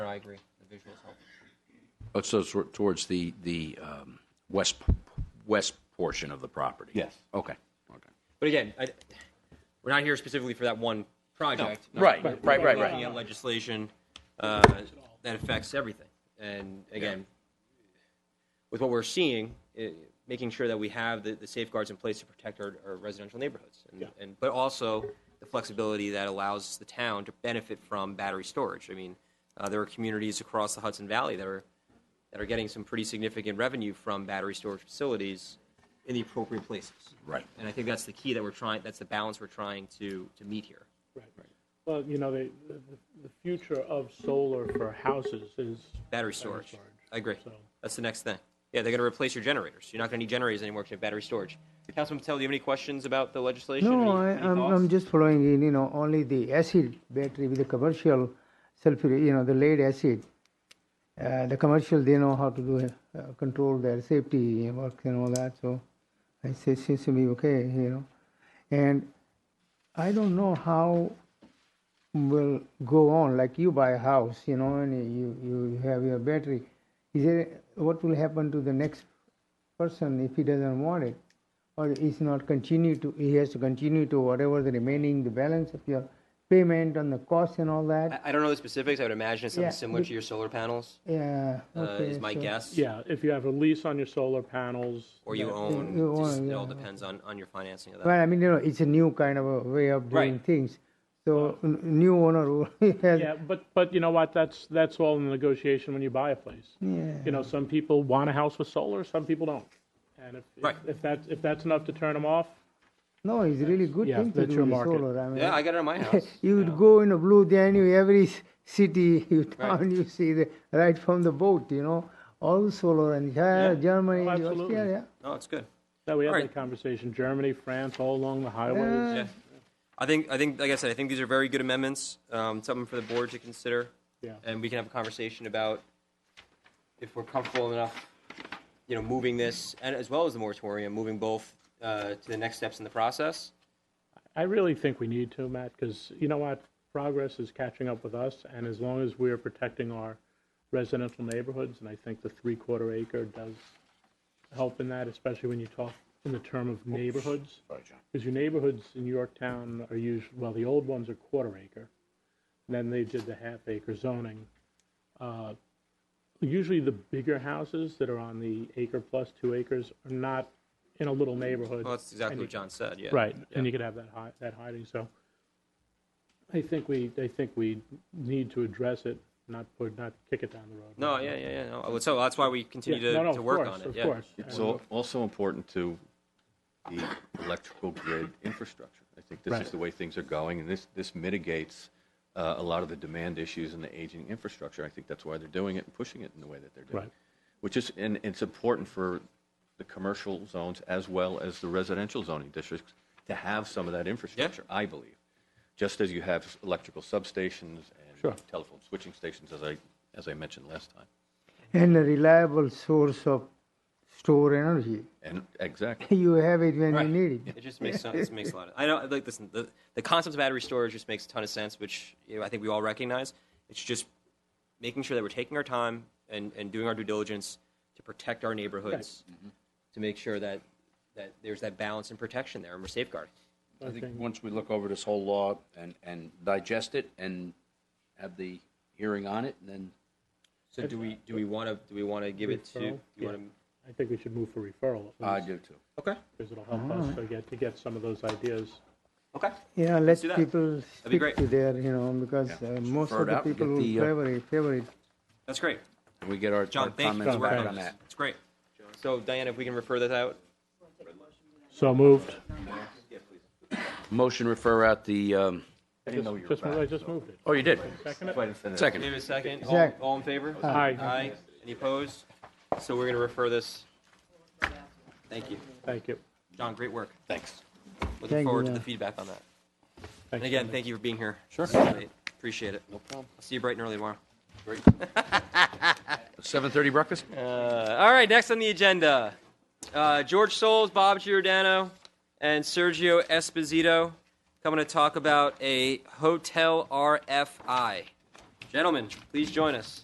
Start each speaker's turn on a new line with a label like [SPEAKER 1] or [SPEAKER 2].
[SPEAKER 1] I agree. The visuals help.
[SPEAKER 2] Oh, so it's towards the, the um, west, p- west portion of the property?
[SPEAKER 3] Yes.
[SPEAKER 2] Okay, okay.
[SPEAKER 1] But again, I, we're not here specifically for that one project.
[SPEAKER 2] Right, right, right,
[SPEAKER 1] We're
[SPEAKER 2] right.
[SPEAKER 1] Looking at legislation uh, that affects everything. And again, with what we're seeing, i making sure that we have the, the safeguards in place to protect our, our residential neighborhoods, and, and but also the flexibility that allows the town to benefit from battery storage. I mean, uh, there are communities across the Hudson Valley that are that are getting some pretty significant revenue from battery storage facilities in the appropriate places.
[SPEAKER 2] Right.
[SPEAKER 1] And I think that's the key that we're trying. That's the balance we're trying to to meet here.
[SPEAKER 4] Right. Well, you know, the, the, the future of solar for houses is.
[SPEAKER 1] Battery storage.
[SPEAKER 4] storage.
[SPEAKER 1] I agree.
[SPEAKER 4] So-
[SPEAKER 1] That's the next thing. Yeah, they're going to replace your generators. You're not going to need generators anymore because you have battery storage. Councilman Patel, do you have any questions about the legislation? Any-
[SPEAKER 5] No, I,
[SPEAKER 1] any
[SPEAKER 5] I'm,
[SPEAKER 1] thoughts?
[SPEAKER 5] I'm just following in, you know, only the acid battery with the commercial sulfur, you know, the lead acid. Uh, the commercial, they know how to do, uh, control their safety work and all that, so it se- seems to be okay, you know. And I don't know how will go on, like you buy a house, you know, and you, you have your battery. Is there, what will happen to the next person if he doesn't want it? Or is not continue to, he has to continue to whatever the remaining, the balance of your payment on the cost and all that?
[SPEAKER 1] I, I don't know the specifics. I would imagine it's something
[SPEAKER 5] Yeah,
[SPEAKER 1] similar
[SPEAKER 5] we-
[SPEAKER 1] to your solar panels.
[SPEAKER 5] Yeah.
[SPEAKER 1] Uh,
[SPEAKER 5] okay,
[SPEAKER 1] is my
[SPEAKER 5] so-
[SPEAKER 1] guess.
[SPEAKER 4] Yeah, if you have a lease on your solar panels.
[SPEAKER 1] Or you
[SPEAKER 4] that-
[SPEAKER 1] own.
[SPEAKER 5] you
[SPEAKER 1] just-
[SPEAKER 5] own,
[SPEAKER 1] it
[SPEAKER 5] yeah.
[SPEAKER 1] all depends on, on your financing of that.
[SPEAKER 5] Well, I mean, you know, it's a new kind of a way of doing
[SPEAKER 1] uh, Right.
[SPEAKER 5] things. So n- new owner who has,
[SPEAKER 4] Yeah, but, but you know what, that's, that's all in the negotiation when you buy a place.
[SPEAKER 5] Yeah.
[SPEAKER 4] You know, some people want a house with solar, some people don't. And if,
[SPEAKER 1] Right.
[SPEAKER 4] if- if that's, if that's enough to turn them off,
[SPEAKER 5] no, it's really good
[SPEAKER 4] Yeah,
[SPEAKER 5] thing to
[SPEAKER 4] that's
[SPEAKER 5] do
[SPEAKER 4] your
[SPEAKER 5] the
[SPEAKER 4] market.
[SPEAKER 5] solar. I mean,
[SPEAKER 1] Yeah, I got it on my house.
[SPEAKER 5] you would go in a blue Danube, every c- city you town you see the right from the boat, you know, all solar and yeah, Germany,
[SPEAKER 4] Oh,
[SPEAKER 5] and
[SPEAKER 4] absolutely.
[SPEAKER 5] Austria, yeah.
[SPEAKER 1] No, it's good.
[SPEAKER 4] that we have
[SPEAKER 1] All
[SPEAKER 4] that
[SPEAKER 1] right.
[SPEAKER 4] conversation, Germany, France, all along the highways.
[SPEAKER 1] Yeah. I think, I think, like I said, I think these are very good amendments, um, something for the board to consider.
[SPEAKER 4] Yeah.
[SPEAKER 1] And we can have a conversation about if we're comfortable enough, you know, moving this, and as well as the moratorium, moving both, uh, to the next steps in the process.
[SPEAKER 4] I really think we need to, Matt, because you know what? Progress is catching up with us, and as long as we are protecting our residential neighborhoods, and I think the three-quarter acre does help in that, especially when you talk in the term of neighborhoods. Because your neighborhoods in Yorktown are usually, well, the old ones are quarter acre. Then they did the half acre zoning. Uh, Usually the bigger houses that are on the acre plus two acres are not in a little neighborhood.
[SPEAKER 1] Well, that's exactly
[SPEAKER 4] and you
[SPEAKER 1] what John said, yeah.
[SPEAKER 4] Right, and you could have that hi, that hiding, so I think we, I think we need to address it, not put, not kick it down the road.
[SPEAKER 1] No, yeah, yeah, yeah, no, well, so that's why we continue
[SPEAKER 4] Yeah, no, no,
[SPEAKER 1] to, to
[SPEAKER 4] of
[SPEAKER 1] work
[SPEAKER 4] course,
[SPEAKER 1] on it,
[SPEAKER 4] of
[SPEAKER 1] yeah.
[SPEAKER 4] course.
[SPEAKER 3] It's al- also important to the electrical grid infrastructure. I think this
[SPEAKER 4] Right.
[SPEAKER 3] is the way things are going, and this, this mitigates uh, a lot of the demand issues in the aging infrastructure. I think that's why they're doing it and pushing it in the way that they're doing.
[SPEAKER 4] Right.
[SPEAKER 3] Which is, and it's important for the commercial zones as well as the residential zoning districts to have some of that infrastructure, I believe. Just as you have electrical substations
[SPEAKER 4] Sure.
[SPEAKER 3] and telephone switching stations, as I, as I mentioned last time.
[SPEAKER 5] And a reliable source of store energy.
[SPEAKER 3] And, exactly.
[SPEAKER 5] You have it when
[SPEAKER 1] Right.
[SPEAKER 5] you need it.
[SPEAKER 1] It just makes sense. It makes a lot of. I know. Like, listen, the, the concept of battery storage just makes a ton of sense, which you know, I think we all recognize. It's just making sure that we're taking our time and, and doing our due diligence to protect our neighborhoods, to make sure that that there's that balance and protection there, and we're safeguarding.
[SPEAKER 2] I think once we look over this whole law and, and digest it and have the hearing on it, then
[SPEAKER 1] So do we do we want to do we want to give it to? Do
[SPEAKER 4] Referral?
[SPEAKER 1] you want
[SPEAKER 4] I think we should move for referral,
[SPEAKER 2] I
[SPEAKER 4] at least,
[SPEAKER 2] do too.
[SPEAKER 1] to? Okay.
[SPEAKER 4] because it'll help us to get, to get some of those ideas.
[SPEAKER 1] Okay.
[SPEAKER 5] Yeah, let
[SPEAKER 1] do that.
[SPEAKER 5] people
[SPEAKER 1] be
[SPEAKER 5] speak
[SPEAKER 1] great.
[SPEAKER 5] to their, you know, because uh, most
[SPEAKER 2] refer it
[SPEAKER 5] of the
[SPEAKER 2] out and
[SPEAKER 5] people
[SPEAKER 2] get
[SPEAKER 5] who
[SPEAKER 2] the, uh,
[SPEAKER 5] favor it, favor it.
[SPEAKER 1] That's great.
[SPEAKER 2] We get our our
[SPEAKER 1] John, thank you for
[SPEAKER 2] comments
[SPEAKER 1] working
[SPEAKER 2] back
[SPEAKER 1] on
[SPEAKER 2] on
[SPEAKER 1] this.
[SPEAKER 2] that.
[SPEAKER 1] It's great. So Diana, if we can refer that out.
[SPEAKER 4] So moved.
[SPEAKER 2] Motion refer out the, um,
[SPEAKER 3] I didn't know you were
[SPEAKER 4] Just,
[SPEAKER 3] back.
[SPEAKER 4] I just moved it.
[SPEAKER 2] oh, you did.
[SPEAKER 4] Second
[SPEAKER 3] That's why I didn't send
[SPEAKER 1] Do
[SPEAKER 3] it.
[SPEAKER 1] we
[SPEAKER 2] Second.
[SPEAKER 1] have a second? All,
[SPEAKER 5] Zach.
[SPEAKER 1] all in favor?
[SPEAKER 4] Aye.
[SPEAKER 1] Aye. Any opposed? So we're going to refer this. Thank you.
[SPEAKER 4] Thank you.
[SPEAKER 1] John, great work.
[SPEAKER 3] Thanks.
[SPEAKER 1] Looking
[SPEAKER 5] Thank you,
[SPEAKER 1] forward to
[SPEAKER 5] yeah.
[SPEAKER 1] the feedback on that.
[SPEAKER 4] Thanks,
[SPEAKER 1] And again,
[SPEAKER 4] Dominic.
[SPEAKER 1] thank you for being here. Sure. Appreciate it. No problem. I'll see you bright and early tomorrow.
[SPEAKER 2] Seven thirty breakfast?
[SPEAKER 1] Uh, all right, next on the agenda uh, George Souls, Bob Giordano, and Sergio Esposito coming to talk about a hotel RFI. Gentlemen, please join us.